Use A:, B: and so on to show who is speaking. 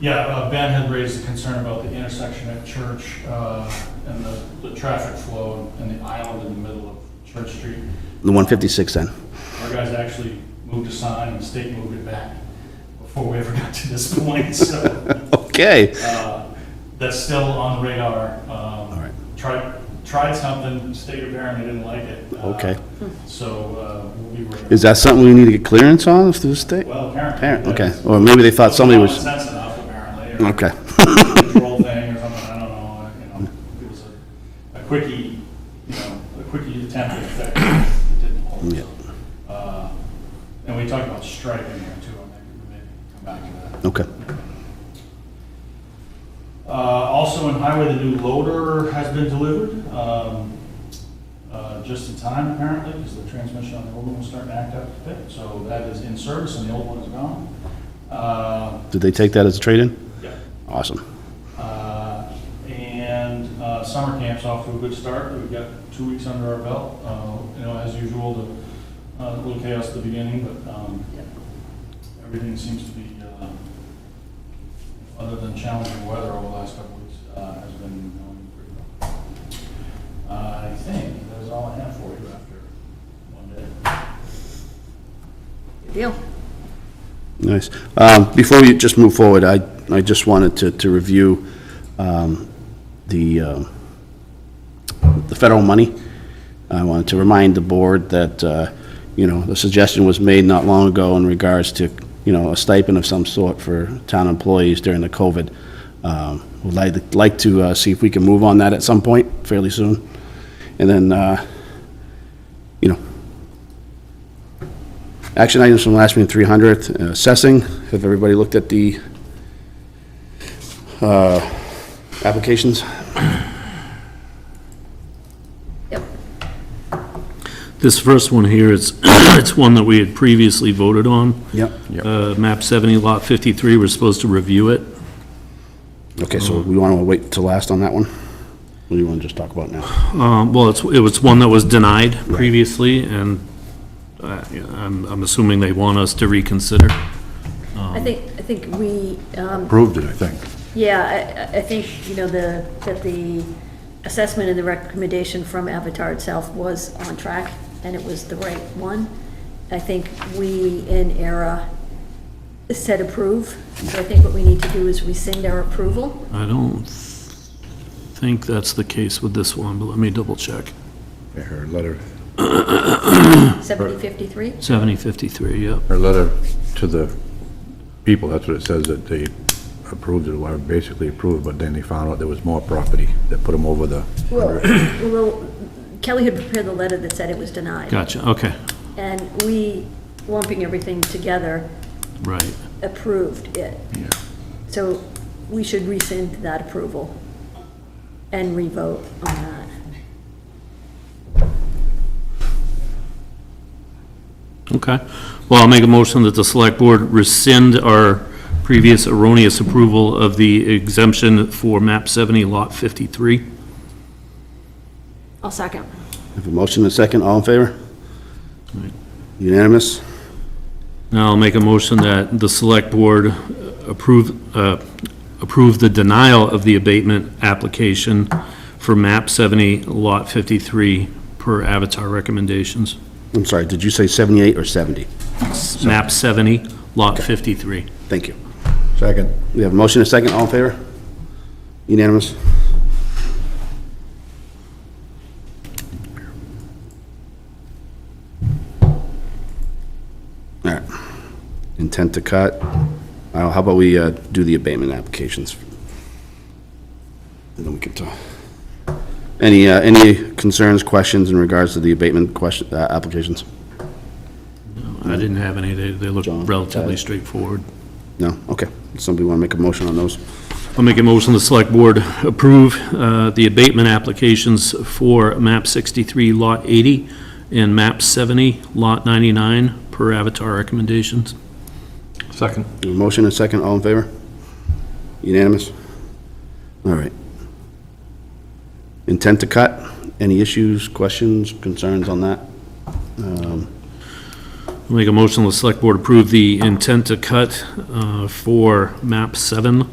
A: Yeah, uh, Ben had raised a concern about the intersection at Church uh, and the, the traffic flow and the island in the middle of Church Street.
B: The 156 then?
A: Our guys actually moved a sign and the state moved it back before we ever got to this point, so
B: Okay.
A: uh, that's still on the radar. All
B: right.
A: Tried, tried something, state apparently didn't like it. uh,
B: Okay.
A: So uh, we were.
B: Is that something we need to get clearance on through the state?
A: Well,
B: Apparent-
A: apparently.
B: Okay,
A: that's-
B: or maybe they thought somebody was,
A: Common sense enough, apparently. or-
B: okay.
A: control thing or something, I don't know, you know, it was a, a quickie, you know, a quickie attempt at effect, it didn't hold. so. Uh, And we talked about striping there too, I think, maybe come back to that.
B: Okay.
A: Uh, also in highway, the new loader has been delivered, um, uh, just in time apparently, because the transmission on the old one was starting to act up a bit, so that is in service and the old one is gone. Uh,
B: Did they take that as a trade-in?
A: yeah.
B: Awesome.
A: Uh, And uh, summer camp's off to a good start. We've got two weeks under our belt. Uh, You know, as usual, the, uh, a little chaos at the beginning, but um, everything seems to be, uh, other than challenging weather over the last couple weeks, uh, has been going pretty well. Uh, I think that's all I have for you after one day.
C: Deal.
B: Nice. Um, Before we just move forward, I, I just wanted to, to review um, the, um, the federal money. I wanted to remind the board that, uh, you know, the suggestion was made not long ago in regards to, you know, a stipend of some sort for town employees during the COVID. Um, Would like, like to uh, see if we can move on that at some point fairly soon. And then, uh, you know, Action items from last meeting, 300th, uh, assessing. Have everybody looked at the uh, applications?
C: Yep.
D: This first one here, it's, it's one that we had previously voted on.
B: Yep.
D: Uh, map 70, lot 53, we're supposed to review it.
B: Okay, so we want to wait till last on that one? What do you want to just talk about now?
D: Um, well, it's, it was one that was denied previously, and, uh, I'm, I'm assuming they want us to reconsider.
C: I think, I think we, um,
E: Proved it, I think.
C: yeah, I- I, I think, you know, the, that the assessment and the recommendation from Avatar itself was on track, and it was the right one. I think we in ERA said approve, so I think what we need to do is rescind our approval.
D: I don't think that's the case with this one, but let me double check.
E: Her letter,
C: Seventy fifty-three?
D: 7053, yep.
E: her letter to the people, that's what it says, that they approved it, or basically approved, but then they found out there was more property that put them over the,
C: Well, well, Kelly had prepared the letter that said it was denied.
D: Gotcha, okay,
C: And we, lumping everything together,
D: right.
C: approved it. So we should rescind that approval and revote on that.
D: Okay. Well, I'll make a motion that the select board rescind our previous erroneous approval of the exemption for map 70, lot 53.
C: I'll second.
B: Have a motion and a second, all in favor? Unanimous?
D: Now I'll make a motion that the select board approve, uh, approve the denial of the abatement application for map 70, lot 53, per Avatar recommendations.
B: I'm sorry, did you say 78 or 70?
D: Map 70, lot 53.
B: Thank you.
E: second,
B: We have a motion and a second, all in favor? Unanimous? All right. Intent to cut. Uh, How about we uh, do the abatement applications? And then we can talk. Any, uh, any concerns, questions in regards to the abatement question, uh, applications?
D: I didn't have any, they, they look
B: John, got
D: relatively
B: it.
D: straightforward.
B: No? Okay. Somebody want to make a motion on those?
D: I'll make a motion, the select board approve uh, the abatement applications for map 63, lot 80, and map 70, lot 99, per Avatar recommendations.
F: Second.
B: A Motion and second, all in favor? Unanimous? All right. Intent to cut, any issues, questions, concerns on that? Um,
D: I'll Make a motion, the select board approve the intent to cut uh, for map seven,